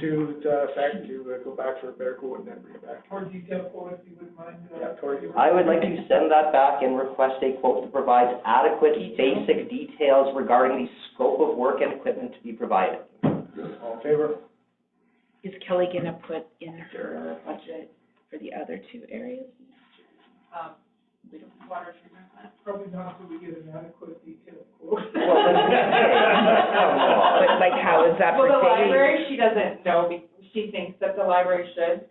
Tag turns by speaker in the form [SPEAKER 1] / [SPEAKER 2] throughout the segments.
[SPEAKER 1] to the fact to uh, go back for a better quote and then bring it back.
[SPEAKER 2] More detailed quote, if you wouldn't mind. uh,
[SPEAKER 1] Yeah, Tori.
[SPEAKER 3] I would like to send that back and request a quote that provides adequate basic details regarding the scope of work and equipment to be provided.
[SPEAKER 1] All in favor?
[SPEAKER 4] Is Kelly gonna put in her budget for the other two areas?
[SPEAKER 2] Um, water treatment plant. Probably not until we get an adequate detailed quote.
[SPEAKER 3] Well, that's-
[SPEAKER 4] But like, how is that for
[SPEAKER 5] Well, the
[SPEAKER 4] days?
[SPEAKER 5] library, she doesn't know, be- she thinks that the library should,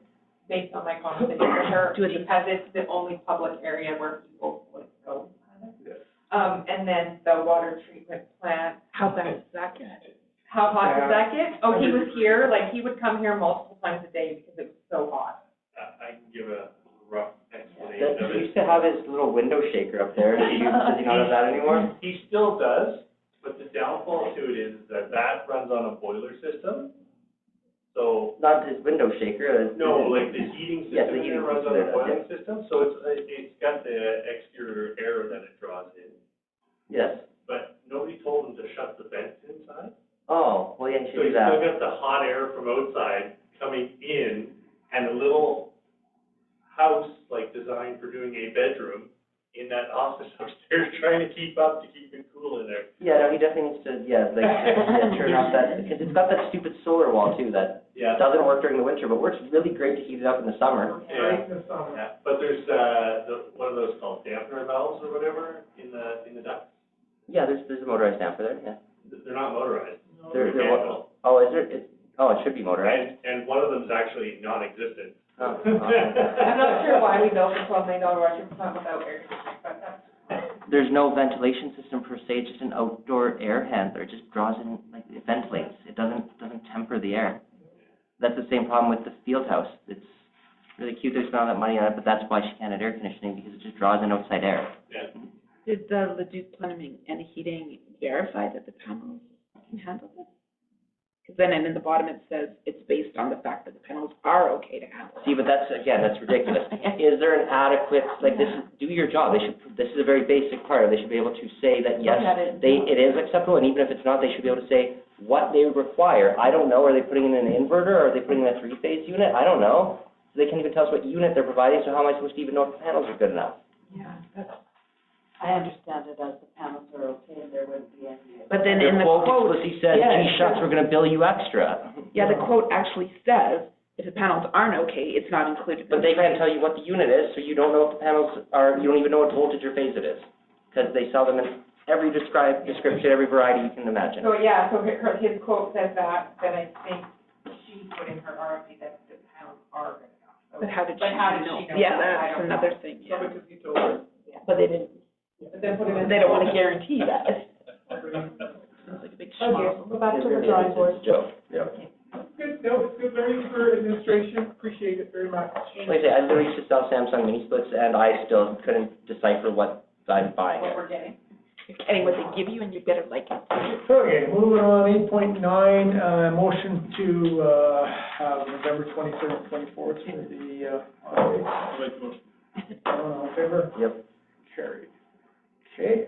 [SPEAKER 5] based on my conversation with her,
[SPEAKER 4] Do it the-
[SPEAKER 5] because it's the only public area where people would go.
[SPEAKER 1] Yes.
[SPEAKER 5] Um, and then the water treatment plant,
[SPEAKER 4] How bad is that get?
[SPEAKER 5] how hot
[SPEAKER 1] Yeah.
[SPEAKER 5] does that get? Oh, he was here, like, he would come here multiple times a day because it was so hot.
[SPEAKER 6] I, I can give a rough explanation of
[SPEAKER 3] That-
[SPEAKER 6] it.
[SPEAKER 3] He used to have his little window shaker up there. Do you, does he not have that anymore?
[SPEAKER 6] He still does, but the downfall to it is that that runs on a boiler system. So,
[SPEAKER 3] Not his window shaker. uh, that's-
[SPEAKER 6] no, like the heating
[SPEAKER 3] Yeah, the
[SPEAKER 6] system here
[SPEAKER 3] heating
[SPEAKER 6] runs on a
[SPEAKER 3] system there, yeah.
[SPEAKER 6] boiling system, so it's, it- it's got the exterior air that it draws in.
[SPEAKER 3] Yes.
[SPEAKER 6] But nobody told him to shut the vents inside.
[SPEAKER 3] Oh, well, yeah, he should
[SPEAKER 6] So you
[SPEAKER 3] do
[SPEAKER 6] still got
[SPEAKER 3] that.
[SPEAKER 6] the hot air from outside coming in and a little house like designed for doing a bedroom in that office upstairs, trying to keep up to keep it cool in there.
[SPEAKER 3] Yeah, no, he definitely needs to, yeah, like, yeah, turn off that, because it's got that stupid solar wall too that
[SPEAKER 6] Yeah.
[SPEAKER 3] doesn't work during the winter, but works really great to heat it up in the summer.
[SPEAKER 2] Right in the summer.
[SPEAKER 6] Yeah, But there's, uh, the, what are those called, dampener valves or whatever in the, in the duct?
[SPEAKER 3] Yeah, there's, there's a motorized damper there, yeah.
[SPEAKER 6] They're not motorized.
[SPEAKER 3] There,
[SPEAKER 6] They're
[SPEAKER 3] there, wa-
[SPEAKER 6] mechanical.
[SPEAKER 3] oh, is there, it's, oh, it should be motorized.
[SPEAKER 6] And, and one of them's actually non-existent.
[SPEAKER 3] Oh, okay.
[SPEAKER 5] I'm not sure why we built a twelve million dollar water treatment plant without air conditioning, but that's
[SPEAKER 3] There's no ventilation system per se, just an outdoor air handler, it just draws in, like, it ventilates, it doesn't, doesn't temper the air. That's the same problem with the field house, it's really cute they spent all that money on it, but that's why she can't have air conditioning, because it just draws in outside air.
[SPEAKER 6] Yeah.
[SPEAKER 4] Did the Leduc Plumbing and Heating verify that the panels can handle this? Because then, and in the bottom, it says it's based on the fact that the panels are okay to handle.
[SPEAKER 3] See, but that's, again, that's ridiculous. Is there an adequate, like, this is, do your job, they should, this is a very basic part, they should be able to say that, yes, they, it is acceptable, and even if it's not, they should be able to say what they require. I don't know, are they putting in an inverter, are they putting in a three-phase unit? I don't know. They can't even tell us what unit they're providing, so how am I supposed to even know if the panels are good enough?
[SPEAKER 4] Yeah, that's-
[SPEAKER 7] I understand it as the panels are okay and there wouldn't be any.
[SPEAKER 4] but then in the quote,
[SPEAKER 3] explicitly says,
[SPEAKER 7] yeah,
[SPEAKER 3] gee shucks, we're gonna bill you extra.
[SPEAKER 4] yeah, the quote actually says, if the panels aren't okay, it's not included.
[SPEAKER 3] But they can't tell you what the unit is, so you don't know if the panels are, you don't even know what voltage or phase it is. Because they sell them in every describe, description, every variety you can imagine.
[SPEAKER 5] So, yeah, so her, her- his quote says that, then I think she put in her RFP that the pounds are good enough. So-
[SPEAKER 4] But how did she
[SPEAKER 5] But how did
[SPEAKER 4] know?
[SPEAKER 5] she know?
[SPEAKER 4] Yeah,
[SPEAKER 5] that? I
[SPEAKER 4] that's
[SPEAKER 5] don't know.
[SPEAKER 4] another thing, yeah.
[SPEAKER 2] So because he told her.
[SPEAKER 4] But they didn't,
[SPEAKER 5] But then put it in.
[SPEAKER 4] they don't want to guarantee that. Sounds like a big schmuck.
[SPEAKER 7] Okay, go back to the
[SPEAKER 3] It's-
[SPEAKER 7] drawing
[SPEAKER 3] it's
[SPEAKER 7] board.
[SPEAKER 3] a joke. Yeah.
[SPEAKER 2] Good, that was good learning for administration, appreciate it very much.
[SPEAKER 3] Like I say, I literally used to sell Samsung mini splits and I still couldn't decipher what I'm buying.
[SPEAKER 5] What we're getting.
[SPEAKER 4] Anyway, they give you and you better like it.
[SPEAKER 1] Okay, moving on, eight point nine, uh, motion to, uh, have November twenty-third, twenty-fourth for the, uh, holiday. Everyone all in favor?
[SPEAKER 3] Yep.
[SPEAKER 1] Carried. Okay.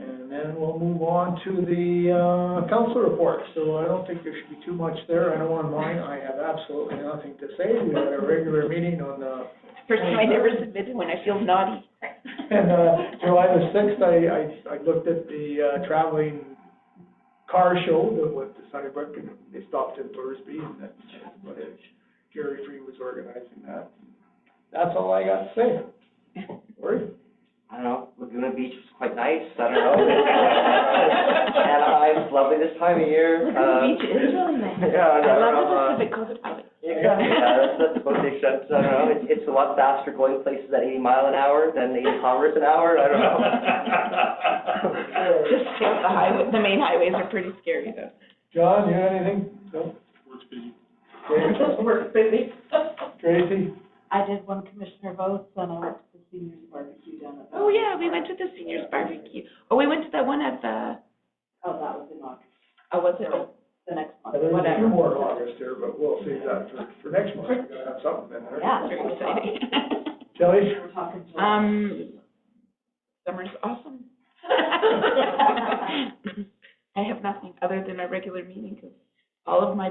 [SPEAKER 1] And then we'll move on to the, uh, council report, so I don't think there should be too much there, I know on mine, I have absolutely nothing to say, we had a regular meeting on, uh,
[SPEAKER 4] First time I never submitted one, I feel naughty.
[SPEAKER 1] and, uh, July the sixth, I, I, I looked at the, uh, traveling car show that went to Sunnybrook, and they stopped in Thursby, and that's what it, Gary Free was organizing that. That's all I got to say. Cory?
[SPEAKER 3] I don't know, Laguna Beach was quite nice, I don't know. Anaheim's lovely this time of year. uh,
[SPEAKER 4] Laguna Beach is really nice.
[SPEAKER 3] Yeah, I
[SPEAKER 4] I
[SPEAKER 3] don't
[SPEAKER 4] love
[SPEAKER 3] know, uh,
[SPEAKER 4] the Pacific Coast Highway.
[SPEAKER 3] Exactly, yeah, that's, that's about the extent, I don't know, it's, it's a lot faster going places at eighty mile an hour than eighty kilometers an hour, I don't know.
[SPEAKER 4] Just sort of the highway, the main highways are pretty scary though.
[SPEAKER 1] John, you got anything? No? Works busy.
[SPEAKER 5] We're busy.
[SPEAKER 1] Tracy?
[SPEAKER 7] I did one commissioner votes and I went to the seniors barbecue down at. the-
[SPEAKER 4] Oh, yeah, we went to the seniors barbecue. Oh, we went to that one at the,
[SPEAKER 7] Oh, that was in August,
[SPEAKER 4] oh, was it, oh,
[SPEAKER 7] the next month,
[SPEAKER 1] There's a few
[SPEAKER 7] whatever.
[SPEAKER 1] more in August here, but we'll save that for, for next month, we gotta have something in there.
[SPEAKER 7] Yeah.
[SPEAKER 4] very exciting.
[SPEAKER 1] Shelley?
[SPEAKER 7] We're talking to.
[SPEAKER 4] Um, summer's awesome. Um. I have nothing other than a regular meeting because all of my